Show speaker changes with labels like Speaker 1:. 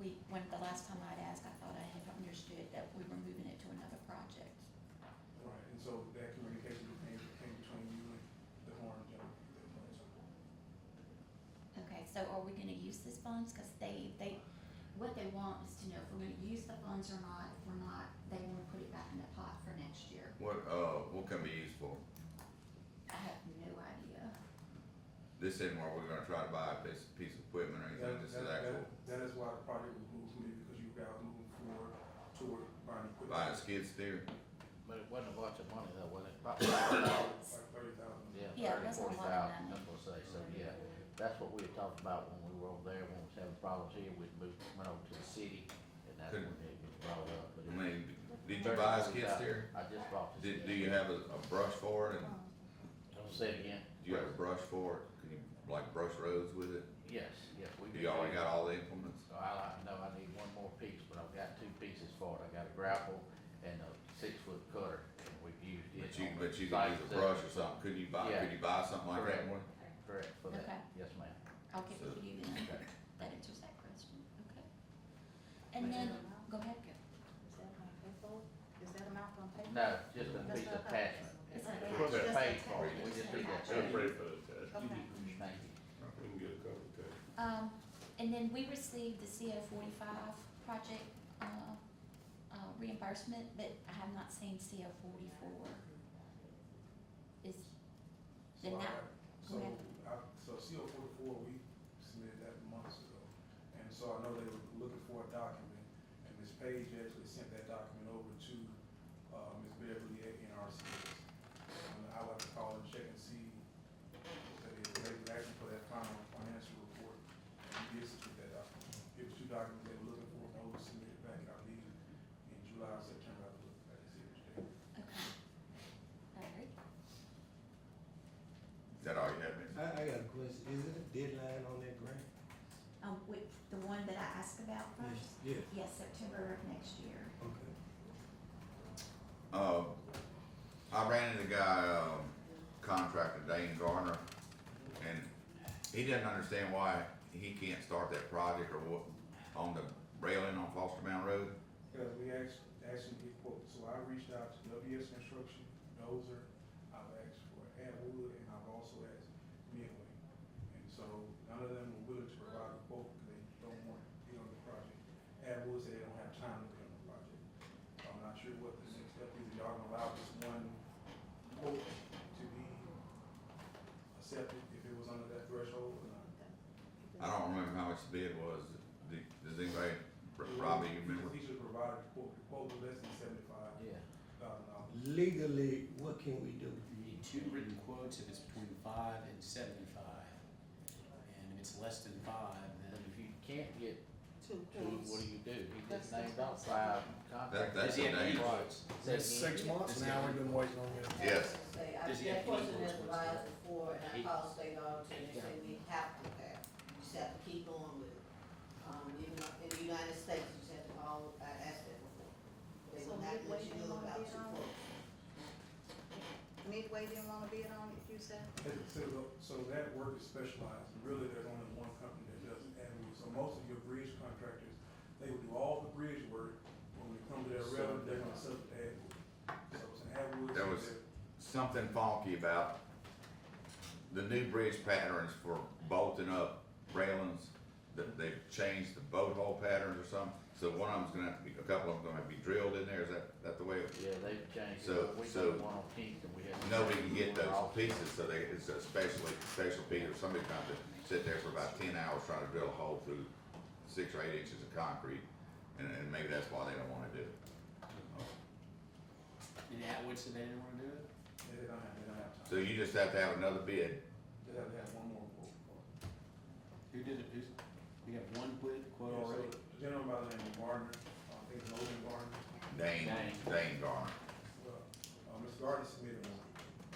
Speaker 1: we, when, the last time I'd asked, I thought I had understood that we were moving it to another project.
Speaker 2: Right, and so that communication came, came between you and the Horn gentleman. that went to-
Speaker 1: Okay, so are we gonna use this funds? Cause they, they, what they want is to know if we're gonna use the funds or not. If we're not, they wanna put it back in the pot for next year.
Speaker 3: What, uh, what can be used for?
Speaker 1: I have no idea.
Speaker 3: This isn't where we're gonna try to buy a piece, piece of equipment or anything,
Speaker 2: That-
Speaker 3: this
Speaker 2: that-
Speaker 3: is
Speaker 2: that-
Speaker 3: actual,
Speaker 2: That is why the project was moved to me, because you guys moved forward toward buying
Speaker 3: buying
Speaker 2: equipment.
Speaker 3: a skid steer.
Speaker 4: But it wasn't a bunch of money though, was it? About-
Speaker 2: Like thirty thousand.
Speaker 1: Yeah, it
Speaker 4: Yeah,
Speaker 1: wasn't
Speaker 4: thirty,
Speaker 1: a
Speaker 4: forty
Speaker 1: lot of
Speaker 4: thousand,
Speaker 1: money.
Speaker 4: that's what I say, so yeah, that's what we had talked about when we were over there, when we was having problems here, we moved, went over to the city, and that's when it was brought up, but.
Speaker 3: I
Speaker 4: it-
Speaker 3: mean, did you buy a skid
Speaker 4: $30,000.
Speaker 3: steer?
Speaker 4: I just bought the.
Speaker 3: Did, do you have a, a brush for it and
Speaker 4: Say it again?
Speaker 3: do you have a brush for it? Can you like brush roads with it?
Speaker 4: Yes, yes,
Speaker 3: Do
Speaker 4: we. did.
Speaker 3: you already got all the implements?
Speaker 4: So I, I know I need one more piece, but I've got two pieces for it, I got a grapple and a six-foot cutter, and we've used it.
Speaker 3: But you,
Speaker 4: on the
Speaker 3: but you can use
Speaker 4: sites
Speaker 3: a
Speaker 4: that-
Speaker 3: brush or something, could you buy, could you buy something like that
Speaker 4: Correct.
Speaker 3: one?
Speaker 4: Correct, for
Speaker 1: Okay.
Speaker 4: that, yes, ma'am.
Speaker 1: I'll get with you then.
Speaker 4: Okay.
Speaker 1: That answers that question, okay. And then, go ahead, go.
Speaker 5: Is that amount paid for? Is that amount gonna pay?
Speaker 4: No, just a piece of attachment.
Speaker 1: It's
Speaker 5: Okay.
Speaker 1: like-
Speaker 4: We're gonna
Speaker 5: Just
Speaker 4: pay
Speaker 5: attach-
Speaker 4: for it, we just need that.
Speaker 5: attach.
Speaker 6: I'm ready for the test.
Speaker 5: Okay.
Speaker 4: Thank you.
Speaker 6: We can get a couple of tests.
Speaker 1: Um, and then we received the CO forty-five project, uh, uh, reimbursement, but I have not seen CO forty-four. Is, Then
Speaker 2: So I-
Speaker 1: that-
Speaker 2: So,
Speaker 1: okay.
Speaker 2: I, so CO forty-four, we submitted that months ago, and so I know they were looking for a document, and Ms. Page actually sent that document over to, uh, Ms. Beverly at NRCS. And I would like to call and check and see if they, if they actually for that final financial report, and did submit that document. It was two documents they were looking for, and those were submitted back, I believe, in July, September, I looked back and see which day.
Speaker 1: okay. Alright,
Speaker 3: Is that all you have, Mitch?
Speaker 7: I, I got a question, is there a deadline on that grant?
Speaker 1: um, with the one that I asked about first?
Speaker 7: Yes.
Speaker 1: Yes, September of next year.
Speaker 7: Okay.
Speaker 3: Uh, I ran into a guy, um, contractor Dane Garner, and he doesn't understand why he can't start that project or what, on the railing on Foster Mountain Road.
Speaker 2: Because we asked, asked him to get quotes, so I reached out to WS Construction, Dozer, I've asked for Atwood, and I've also asked Midway. And so none of them were willing to provide a quote, because they don't want to get on the project. Atwood said they don't have time to get on the project. I'm not sure what the next step is, y'all gonna allow this one quote to be accepted, if it was under that threshold or not.
Speaker 3: I don't remember how much the bid was. Do- Does anybody, Robbie, you remember?
Speaker 2: Because he should provide a quote, the quote was less than seventy-five
Speaker 4: Yeah.
Speaker 2: thousand dollars.
Speaker 7: Legally, what can we do?
Speaker 8: You need two written quotes if it's between five and seventy-five. And if it's less than five,
Speaker 4: And
Speaker 8: then
Speaker 4: if you can't get
Speaker 5: Two
Speaker 4: to,
Speaker 5: quotes.
Speaker 4: what do you do? He just
Speaker 5: That's-
Speaker 4: named off
Speaker 5: that's-
Speaker 4: five
Speaker 3: That,
Speaker 4: contracts.
Speaker 3: that's
Speaker 8: Does he
Speaker 3: the
Speaker 8: have
Speaker 3: name.
Speaker 8: any-
Speaker 4: That's six
Speaker 8: months now, we've been waiting on this.
Speaker 3: Yes.
Speaker 9: Say, I,
Speaker 8: Does he have to
Speaker 9: that
Speaker 8: keep
Speaker 9: question
Speaker 8: those
Speaker 9: was
Speaker 8: ones?
Speaker 9: advised before, and I
Speaker 4: He-
Speaker 9: called state auditor, and they said we have to have, you just have to keep on with it. Um, even in the United States, you just have to all, I asked that before. They
Speaker 5: So
Speaker 9: will not
Speaker 5: midway
Speaker 9: let you
Speaker 5: they
Speaker 9: know
Speaker 5: won't
Speaker 9: about
Speaker 5: be
Speaker 9: two
Speaker 5: on?
Speaker 9: quotes.
Speaker 5: Midway didn't wanna bid on it, you said?
Speaker 2: So, so that work is specialized, and really, there's only one company that does it, and so most of your bridge contractors, they will do all the bridge work, when it comes to their rail, they're gonna sub it to Atwood. So it's an Atwood.
Speaker 3: That was- Something funky about the new bridge patterns for bolting up railings. That they've changed the boat hole patterns or something. So one of them's gonna have to be, a couple of them's gonna have to be drilled in there. Is that, that the way? it-
Speaker 4: Yeah, they've changed.
Speaker 3: So-
Speaker 4: it. We
Speaker 3: so
Speaker 4: got one on Kings and we had.
Speaker 3: Nobody can get
Speaker 4: one
Speaker 3: those
Speaker 4: off.
Speaker 3: pieces, so they, it's a special, special piece, or somebody trying to sit there for about ten hours trying to drill a hole through six or eight inches of concrete. And, and maybe that's why they don't wanna do it.
Speaker 8: and Atwood said they didn't wanna do it?
Speaker 2: They don't have, they don't have
Speaker 3: So
Speaker 2: time,
Speaker 3: you just have to have another bid
Speaker 2: they have to have one more quote.
Speaker 8: Who did it, who's, we have one quid quote
Speaker 2: Yeah, so
Speaker 8: already?
Speaker 2: The gentleman by the name of Gardner, I think Logan Gardner,
Speaker 3: Dane,
Speaker 4: Dane.
Speaker 3: Dane Garner.
Speaker 2: well, uh, Mr. Gardner submitted one,